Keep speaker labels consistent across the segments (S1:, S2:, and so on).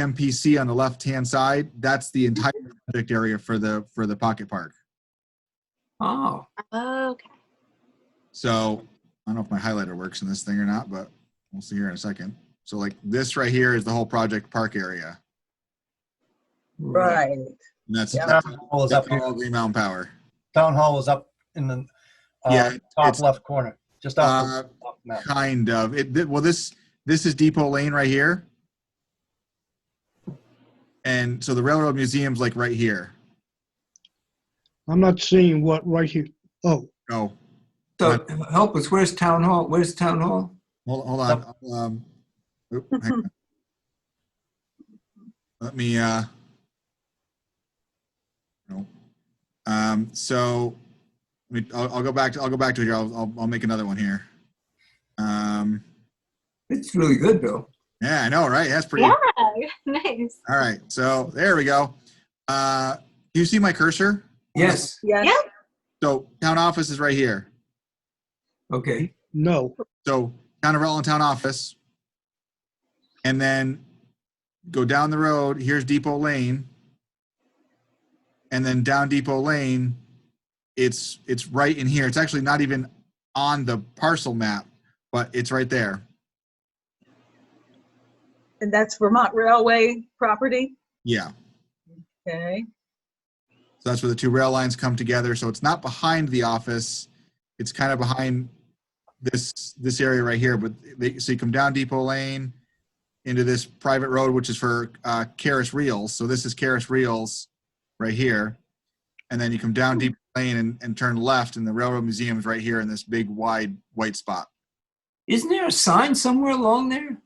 S1: GMPC on the left-hand side, that's the entire project area for the, for the pocket park.
S2: Oh,
S3: Okay.
S1: So I don't know if my highlighter works in this thing or not, but we'll see here in a second. So like this right here is the whole project park area.
S4: Right.
S1: And that's,
S4: Yeah.
S1: that's
S5: Town hall is up
S1: that's
S5: here.
S1: all Green Mountain Power.
S5: Town hall is up in the uh,
S1: Yeah,
S5: top
S1: it's- uh,
S5: left corner, just off the top map.
S1: Kind of. It, th- well, this, this is Depot Lane right here. And so the Railroad Museum's like right here.
S6: I'm not seeing what right here. Oh,
S1: Oh,
S2: so help us, where's Town Hall? Where's Town Hall?
S1: Hold, hold on. Um, oop, hang on. Let me, uh, no. Um, so, let me, I'll, I'll go back to, I'll go back to it here. I'll, I'll, I'll make another one here. Um,
S2: It's really good, Bill.
S1: yeah, I know, right? That's pretty.
S3: Yeah, nice.
S1: All right. So there we go. Uh, do you see my cursor?
S2: Yes,
S4: Yes.
S1: So town office is right here.
S2: okay.
S6: no.
S1: So down to Rutland Town Office. And then go down the road, here's Depot Lane. And then down Depot Lane, it's, it's right in here. It's actually not even on the parcel map, but it's right there.
S4: And that's Vermont Railway property.
S1: Yeah.
S4: Okay.
S1: So that's where the two rail lines come together. So it's not behind the office. It's kind of behind this, this area right here, but they, so you come down Depot Lane into this private road, which is for, uh, Karis Reels. So this is Karis Reels right here. And then you come down Depot Lane and, and turn left and the Railroad Museum is right here in this big wide white spot.
S2: Isn't there a sign somewhere along there?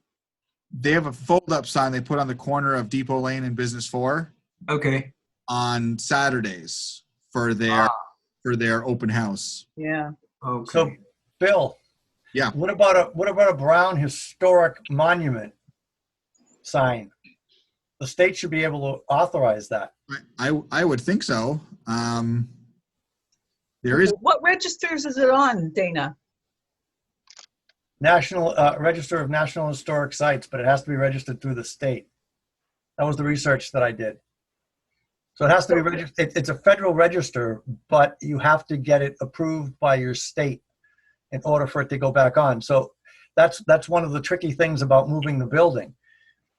S1: They have a fold-up sign they put on the corner of Depot Lane and Business Four
S2: Okay,
S1: on Saturdays for their, for their open house.
S4: Yeah.
S2: okay.
S5: So, Bill.
S1: Yeah.
S5: What about a, what about a Brown Historic Monument sign? The state should be able to authorize that.
S1: I, I- I would think so. Um, there is,
S4: What registers is it on, Dana?
S5: National, uh, Register of National Historic Sites, but it has to be registered through the state. That was the research that I did. So it has to be registered, it, it's a federal register, but you have to get it approved by your state in order for it to go back on. So that's, that's one of the tricky things about moving the building.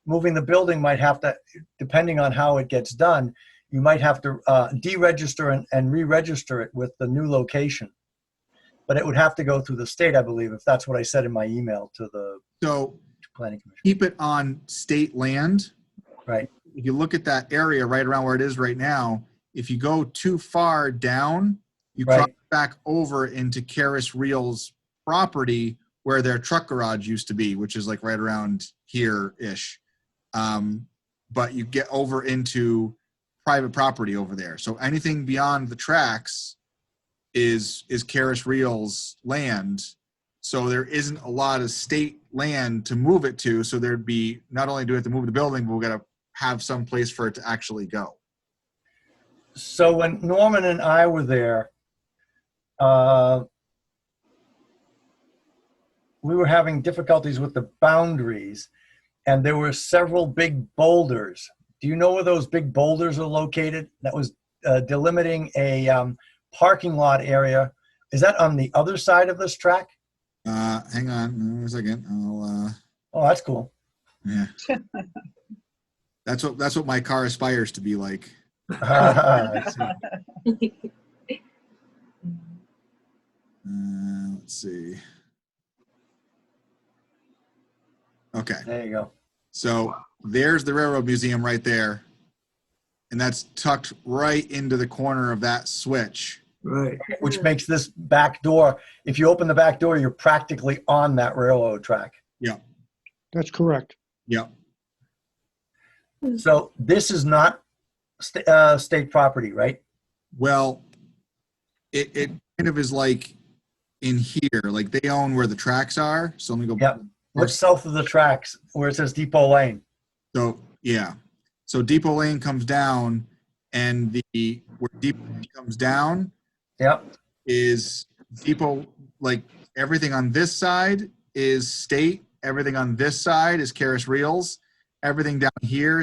S5: Moving the building might have to, depending on how it gets done, you might have to, uh, deregister and, and re-register it with the new location but it would have to go through the state, I believe, if that's what I said in my email to the
S1: so
S5: planning commission.
S1: keep it on state land.
S5: Right.
S1: If you look at that area right around where it is right now, if you go too far down, you
S5: Right.
S1: cross back over into Karis Reels property where their truck garage used to be, which is like right around here-ish. Um, but you get over into private property over there. So anything beyond the tracks is is Karis Reels land. So there isn't a lot of state land to move it to. So there'd be not only do we have to move the building, but we've got to have some place for it to actually go.
S5: So when Norman and I were there, uh, we were having difficulties with the boundaries, and there were several big boulders. Do you know where those big boulders are located? That was uh, delimiting a um, parking lot area. Is that on the other side of this track?
S1: Uh, hang on a second. I'll, uh,
S5: Oh, that's cool.
S1: yeah. that's what that's what my car aspires to be like.
S5: I see.
S1: Uh, let's see. Okay.
S5: There you go.
S1: So there's the Railroad Museum right there. And that's tucked right into the corner of that switch.
S2: Right,
S5: which makes this back door, if you open the back door, you're practically on that railroad track.
S6: That's correct.
S1: Yep.
S5: So this is not sta- uh, state property, right?
S1: Well, it, it kind of is like in here, like they own where the tracks are. So let me go.
S5: Yep. What's south of the tracks where it says Depot Lane?
S1: So, yeah. So Depot Lane comes down and the, where Depot Lane comes down,
S5: Yep.
S1: is depot like everything on this side is state everything on this side is Karis reels everything down here